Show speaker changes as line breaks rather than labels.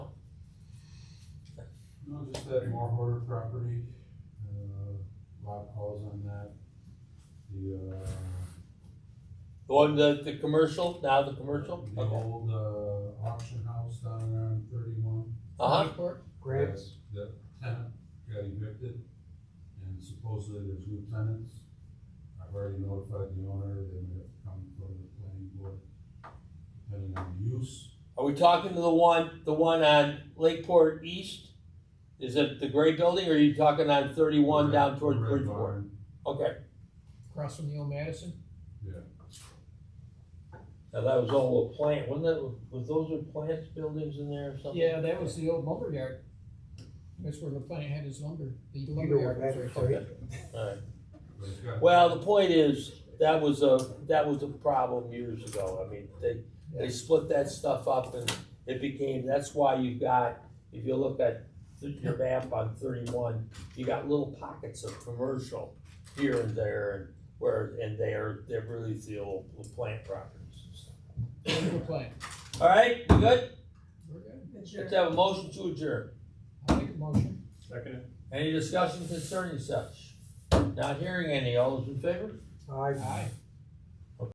No, just that Marhorter property, uh, lot calls on that. The, uh.
The one, the, the commercial, now the commercial?
The
Okay.
old, uh, auction house down there on thirty-one.
Uh-huh,
Graves,
The tenant got evicted, and supposedly there's new tenants. I've already notified the owner, they may have to come in front of the planning board, depending on the use.
are we talking to the one, the one on Lakeport East? Is it the gray building, or are you talking on thirty-one down towards
Red
Bridgeport?
Barn,
Okay,
across from the old Madison.
Yeah,
now that was all a plant, wasn't that, was those were plants, buildings in there or something?
Yeah, that was the old lumberyard. That's where the plant had his lumber, the
You know what
lumberyard was right
that
there.
is,
Alright,
but it's got-
well, the point is, that was a, that was a problem years ago, I mean, they, they split that stuff up and it became, that's why you've got, if you look at th- your map on thirty-one, you got little pockets of commercial here and there and where, and they're, they're really the old plant properties.
Lumber plant.
All right, we good?
We're good.
Let's have a motion to adjourn.
I'll make a motion.
Second.
Any discussion concerning such? Not hearing any. All those in favor?
I-
Aye.